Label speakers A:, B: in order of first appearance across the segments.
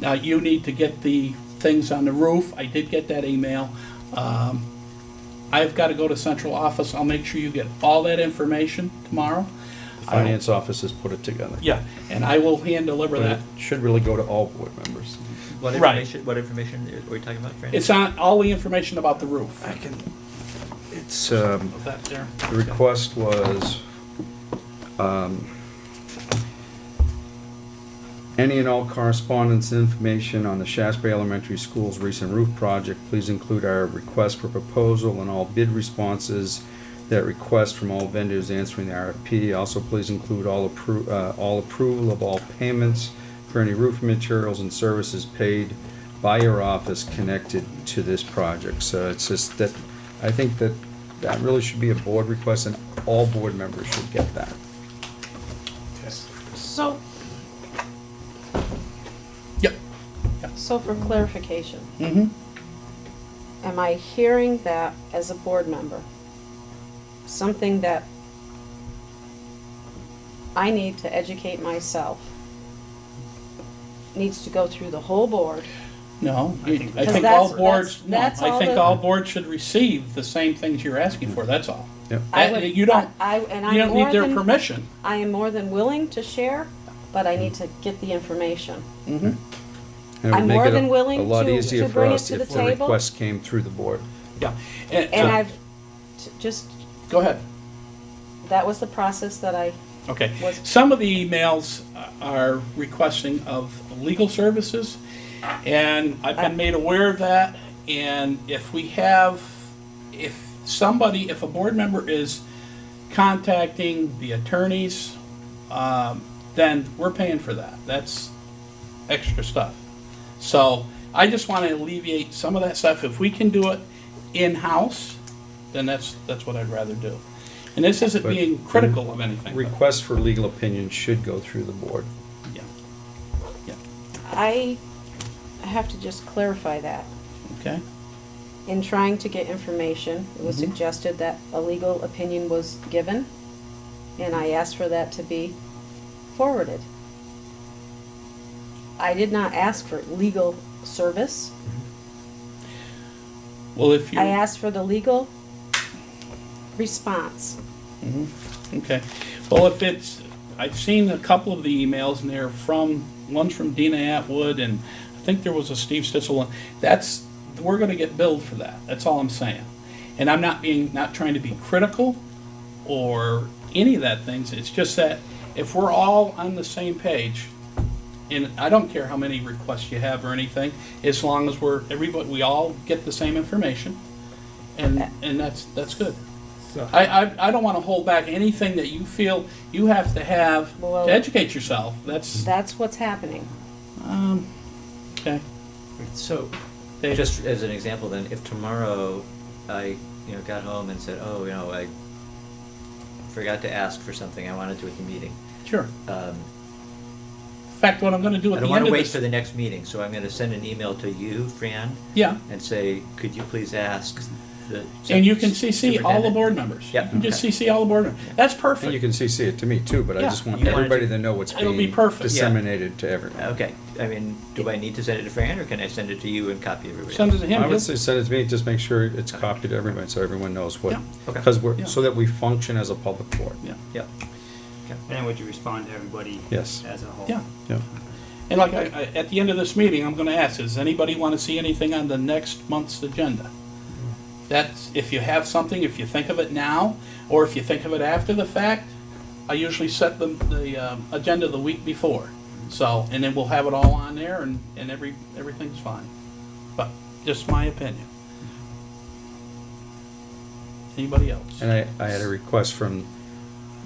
A: Now, you need to get the things on the roof. I did get that email. Um, I've got to go to central office. I'll make sure you get all that information tomorrow.
B: Finance office has put it together.
A: Yeah, and I will hand deliver
B: But
A: that.
B: it should really go to all board members.
C: What
A: Right.
C: information, what information are we talking about, Fran?
A: It's on, all the information about the roof.
B: I can, it's, um,
A: Of that there.
B: the request was, um, any and all correspondence and information on the Shasbury Elementary School's recent roof project, please include our request for proposal and all bid responses, that request from all vendors answering the RFP. Also, please include all appro, uh, all approval of all payments for any roof materials and services paid by your office connected to this project. So it's just that, I think that that really should be a board request and all board members should get that.
D: So,
A: Yep.
D: so for clarification,
A: Mm-hmm.
D: am I hearing that as a board member? Something that I need to educate myself needs to go through the whole board?
A: No, I
D: Because
A: think
D: that's-
A: all boards,
D: that's-
A: no,
D: that's
A: I
D: all
A: think
D: the-
A: all boards should receive the same things you're asking for, that's all.
B: Yep.
D: I
A: That-
D: would-
A: Uh, You don't,
D: I, and
A: you
D: I'm
A: don't need
D: more
A: their
D: than,
A: permission.
D: I am more than willing to share, but I need to get the information.
B: And it would
D: I'm
B: make
D: more
B: it a-
D: than willing
B: A lot
D: to-
B: easier
D: to
B: for
D: bring it
B: us
D: to
B: if
D: the
B: the
D: table.
B: request came through the board.
A: Yeah.
D: And
A: so-
D: I've, t- just,
A: Go ahead.
D: that was the process that I,
A: Okay.
D: Was-
A: Some of the emails are requesting of legal services, and I've been made aware of that. And if we have, if somebody, if a board member is contacting the attorneys, um, then we're paying for that. That's extra stuff. So I just want to alleviate some of that stuff. If we can do it in-house, then that's, that's what I'd rather do. And this isn't
B: But-
A: being critical of anything. but-
B: Requests for legal opinion should go through the board.
A: yeah.
D: I have to just clarify that.
A: Okay.
D: In trying to get information, it was suggested that a legal opinion was given, and I asked for that to be forwarded. I did not ask for legal service.
A: Well, if you
D: I asked for the legal response.
A: okay, well, if it's I've seen a couple of the emails and they're from one's from Dina Atwood and I think there was a Steve Stitzel one. That's we're going to get billed for that. That's all I'm saying. And I'm not being not trying to be critical or any of that things. It's just that if we're all on the same page, and I don't care how many requests you have or anything, as long as we're everybody we all get the same information, and and that's that's good.
C: So-
A: I, I, I don't want to hold back anything that you feel you have to have
D: Well-
A: to educate yourself. That's
D: That's what's happening.
A: um, okay.
C: So,
A: Dave?
C: just as an example then, if tomorrow I, you know, got home and said, oh, you know, I forgot to ask for something, I wanna do at the meeting.
A: Sure.
C: Um,
A: In fact, what I'm going to do
C: I
A: at
C: don't
A: the end
C: wanna
A: of
C: wait
A: this,
C: for the next meeting, so I'm gonna send an email to you, Fran,
A: yeah,
C: and say, could you please ask the.
A: and you can CC all the
C: superintendent?"
A: board members.
C: Yep,
A: You can just
C: okay.
A: CC all the board members. That's
B: And you
A: perfect.
B: can CC it to me too, but I
A: Yeah.
B: just want
C: You want it
B: everybody
C: to-
B: to know what's
A: It'll be
B: being
A: perfect. Yeah.
B: disseminated to everyone.
C: Okay, I mean, do I need to send it to Fran, or can I send it to you and copy everybody?
A: Send it to him.
B: I
A: he'll-
B: would say send it to me, just make sure it's copied to everybody, so everyone knows what,
A: Yeah.
C: Okay.
B: because
A: Yeah.
B: we're, so that we function as a public board.
A: yeah.
C: Yep. Okay.
E: And would you respond to everybody?
B: Yes.
E: As a whole?
A: Yeah.
B: Yeah.
A: And like I, I, at the end of this meeting, I'm going to ask: Does anybody want to see anything on the next month's agenda? That's if you have something, if you think of it now, or if you think of it after the fact. I usually set the the um, agenda the week before, so and then we'll have it all on there, and and every everything's fine. But just my opinion. Anybody else?
B: And I, I had a request from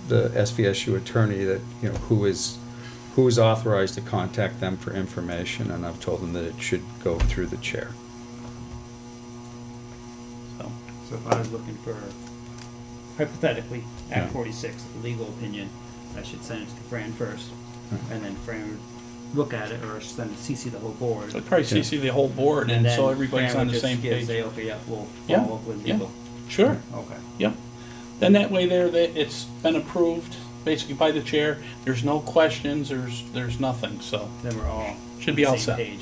B: the SVSU attorney that, you know, who is, who is authorized to contact them for information, and I've told them that it should go through the chair.
A: So,
E: So if I was looking for, hypothetically,
B: Yeah.
E: Act forty-six, legal opinion, I should send it to Fran first,
B: Hmm.
E: and then Fran would look at it, or send CC the whole board.
A: so probably CC the whole board, and,
E: then
A: so everybody's
E: Fran
A: on
E: would
A: the
E: just
A: same
E: give-
A: page.
E: Say, okay, yeah, we'll
A: Yeah,
E: follow up with
A: yeah.
E: legal.
A: Sure.
E: Okay.
A: Yep. Then that way there, that it's been approved basically by the chair. There's no questions, there's, there's nothing, so,
E: Then we're all
A: Should be
E: on
A: all
E: the
A: set.
E: same page.